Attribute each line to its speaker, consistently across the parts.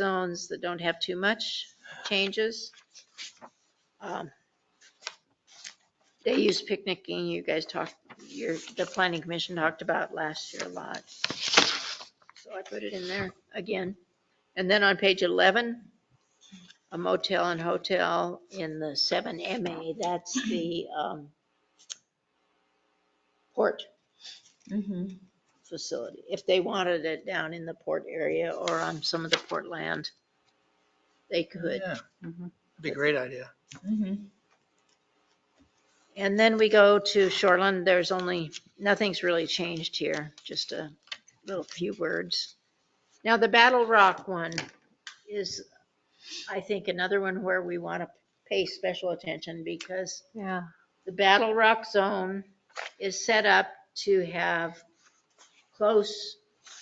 Speaker 1: zones that don't have too much changes. Um, They use picnicking, you guys talked, your, the planning commission talked about last year a lot. So I put it in there again. And then on page 11, a motel and hotel in the 7MA, that's the um, port
Speaker 2: Mhm.
Speaker 1: facility, if they wanted it down in the port area or on some of the port land, they could.
Speaker 3: Yeah,
Speaker 2: Mhm.
Speaker 3: That'd be a great idea.
Speaker 2: Mhm.
Speaker 1: And then we go to Shoreland, there's only, nothing's really changed here, just a little few words. Now, the Battle Rock one is, I think, another one where we want to pay special attention because
Speaker 2: Yeah.
Speaker 1: the Battle Rock Zone is set up to have close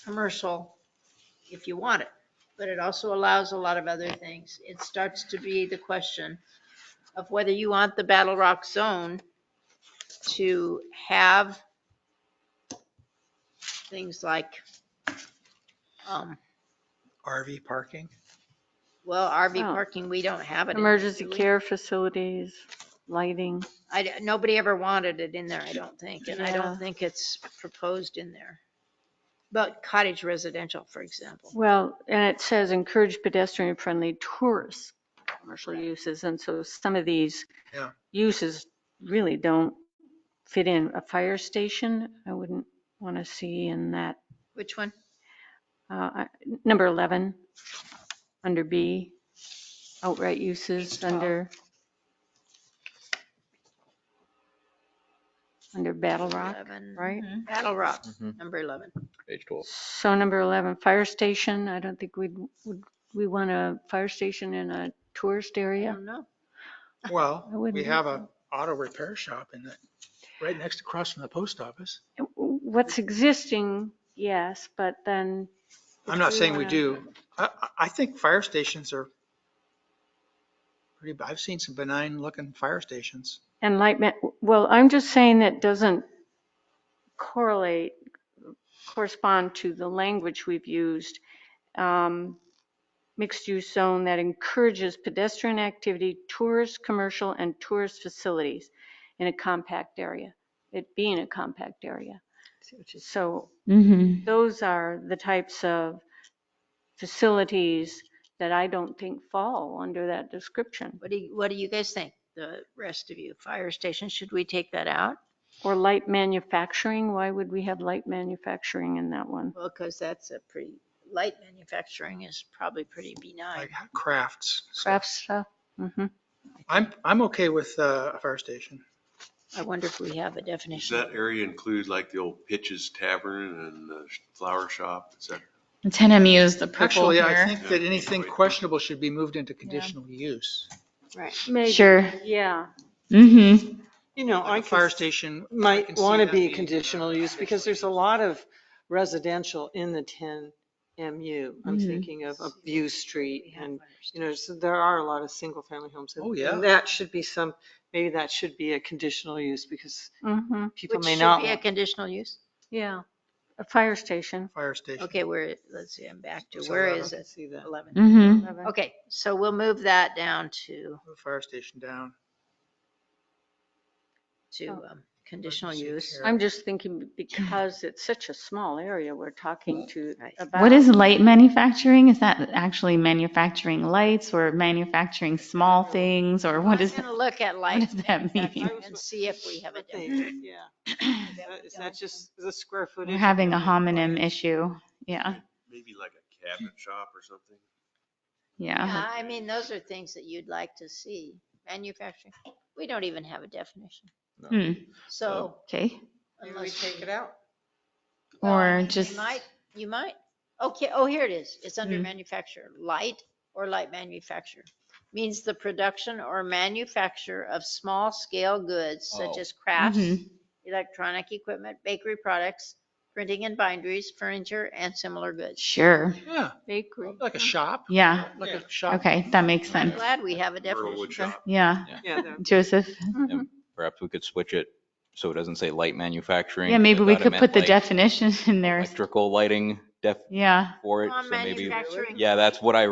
Speaker 1: commercial if you want it, but it also allows a lot of other things. It starts to be the question of whether you want the Battle Rock Zone to have things like, um,
Speaker 3: RV parking.
Speaker 1: well, RV
Speaker 4: Oh.
Speaker 1: parking, we don't have it. in there,
Speaker 4: Emergency
Speaker 1: do we?
Speaker 4: care facilities, lighting.
Speaker 1: I, d- nobody ever wanted it in there, I don't think, and I
Speaker 4: Yeah.
Speaker 1: don't think it's proposed in there. But cottage residential, for example.
Speaker 4: Well, and it says encourage pedestrian friendly tourist commercial uses. And so some of these
Speaker 3: Yeah.
Speaker 4: uses really don't fit in. A fire station, I wouldn't want to see in that,
Speaker 1: Which one?
Speaker 4: uh, I- number 11, under B, outright uses under, under Battle Rock,
Speaker 1: 11.
Speaker 4: right?
Speaker 2: Mhm.
Speaker 1: Battle Rock,
Speaker 5: Mhm.
Speaker 1: number 11.
Speaker 5: Page 12.
Speaker 4: So number 11, fire station, I don't think we'd, would, we want a fire station in a tourist
Speaker 1: I
Speaker 4: area?
Speaker 1: don't know.
Speaker 3: Well,
Speaker 4: I
Speaker 3: we
Speaker 4: wouldn't
Speaker 3: have a auto repair shop in the, right next across from the post office.
Speaker 4: What's existing, yes, but then.
Speaker 3: I'm not
Speaker 4: if
Speaker 3: saying we
Speaker 4: wanna-
Speaker 3: do. I, I- I think fire stations are pretty, I've seen some benign looking fire stations.
Speaker 4: And light, ma- well, I'm just saying that doesn't correlate, correspond to the language we've used. Um, Mixed use zone that encourages pedestrian activity, tourist, commercial and tourist facilities in a compact area, it being a compact area. So
Speaker 2: Mhm.
Speaker 4: those are the types of facilities that I don't think fall under that description.
Speaker 1: What do, you- what do you guys think? The rest of you, fire station, should we take that out?
Speaker 4: Or light manufacturing, why would we have light manufacturing in that one?
Speaker 1: Well, because that's a pretty, light manufacturing is probably pretty benign.
Speaker 3: Like crafts. So
Speaker 4: Craft stuff? Mm-hmm.
Speaker 3: I'm, I'm okay with uh, a fire station.
Speaker 1: I wonder if we have a
Speaker 6: Does
Speaker 1: definition.
Speaker 6: that area include like the old Pitch's Tavern and the flower shop? Is that,
Speaker 2: And 10MU is the purple
Speaker 3: Actually, I
Speaker 2: here.
Speaker 3: think that anything questionable should be moved into conditional use.
Speaker 1: Right.
Speaker 2: Sure.
Speaker 4: Yeah.
Speaker 2: Mm-hmm.
Speaker 7: You know, I
Speaker 3: Like a fire
Speaker 7: could,
Speaker 3: station. I
Speaker 7: might
Speaker 3: can see
Speaker 7: want to
Speaker 3: that
Speaker 7: be
Speaker 3: being, uh,
Speaker 7: conditional use because there's a lot of residential in the ten MU. I'm
Speaker 2: Mhm.
Speaker 7: thinking of of View
Speaker 1: Mm-hmm. We
Speaker 7: Street
Speaker 1: have
Speaker 7: and,
Speaker 1: fire
Speaker 7: you know, so there are a lot of single family homes. and-
Speaker 3: Oh, yeah.
Speaker 7: And that should be some, maybe that should be a conditional use because
Speaker 4: Mm-hmm.
Speaker 7: people
Speaker 1: Which
Speaker 7: may
Speaker 1: should
Speaker 7: not
Speaker 1: be a
Speaker 7: want.
Speaker 1: conditional use?
Speaker 4: Yeah. A fire station.
Speaker 3: Fire station.
Speaker 1: Okay, where, let's see, I'm back to,
Speaker 3: So
Speaker 1: where
Speaker 3: eleven.
Speaker 1: is
Speaker 7: I can
Speaker 1: it?
Speaker 7: see that.
Speaker 1: 11.
Speaker 2: Mm-hmm.
Speaker 1: Okay, so we'll move that down to,
Speaker 3: Move Fire station down.
Speaker 1: to
Speaker 4: Oh.
Speaker 1: um, conditional
Speaker 3: Emergency
Speaker 1: use.
Speaker 3: care.
Speaker 4: I'm just thinking because it's such a small area we're talking to
Speaker 1: Right.
Speaker 4: about.
Speaker 2: What is light manufacturing? Is that actually manufacturing lights or manufacturing small things or what is?
Speaker 1: I'm gonna look at
Speaker 2: What
Speaker 1: life
Speaker 2: does that mean?
Speaker 1: and see if we have a
Speaker 7: But they-
Speaker 1: definition.
Speaker 7: Yeah. Is that- Is that just the square footage?
Speaker 2: We're
Speaker 7: of
Speaker 2: having a
Speaker 7: the
Speaker 2: homonym
Speaker 7: required-
Speaker 2: issue. Yeah,
Speaker 6: maybe like a cabinet shop or something?
Speaker 1: Yeah,
Speaker 2: yeah.
Speaker 4: Uh-huh.
Speaker 1: I mean, those are things that you'd like to see. Manufacturing, we don't even have a definition.
Speaker 2: Hmm,
Speaker 1: So
Speaker 2: okay.
Speaker 7: Maybe we
Speaker 1: unless.
Speaker 7: take it out.
Speaker 1: well,
Speaker 2: Or
Speaker 1: you
Speaker 2: just-
Speaker 1: Might, you might. Okay, oh, here it is. It's under
Speaker 2: Hmm.
Speaker 1: manufacture, light or light manufacture. Means the production or manufacture of small scale goods such
Speaker 5: Oh.
Speaker 1: as crafts,
Speaker 2: Mhm.
Speaker 1: electronic equipment, bakery products, printing and binderies, furniture, and similar goods.
Speaker 2: Sure.
Speaker 3: Yeah,
Speaker 4: Bakery.
Speaker 3: like a shop,
Speaker 2: Yeah,
Speaker 3: like
Speaker 7: Yeah.
Speaker 3: a shop.
Speaker 2: okay, that makes
Speaker 1: I'm
Speaker 2: sense.
Speaker 1: glad we have a
Speaker 6: Or a
Speaker 1: definition.
Speaker 6: wood shop?
Speaker 2: Yeah,
Speaker 7: Yeah, that-
Speaker 2: Joseph.
Speaker 4: Mhm.
Speaker 5: Perhaps we could switch it so it doesn't say light manufacturing.
Speaker 2: Yeah, maybe we
Speaker 5: I thought it
Speaker 2: could
Speaker 5: meant
Speaker 2: put the
Speaker 5: like
Speaker 2: definition in there.
Speaker 5: Electrical lighting def
Speaker 2: Yeah.
Speaker 5: for it,
Speaker 1: On
Speaker 5: so maybe,
Speaker 2: Oh,
Speaker 1: manufacturing.
Speaker 5: yeah, that's what I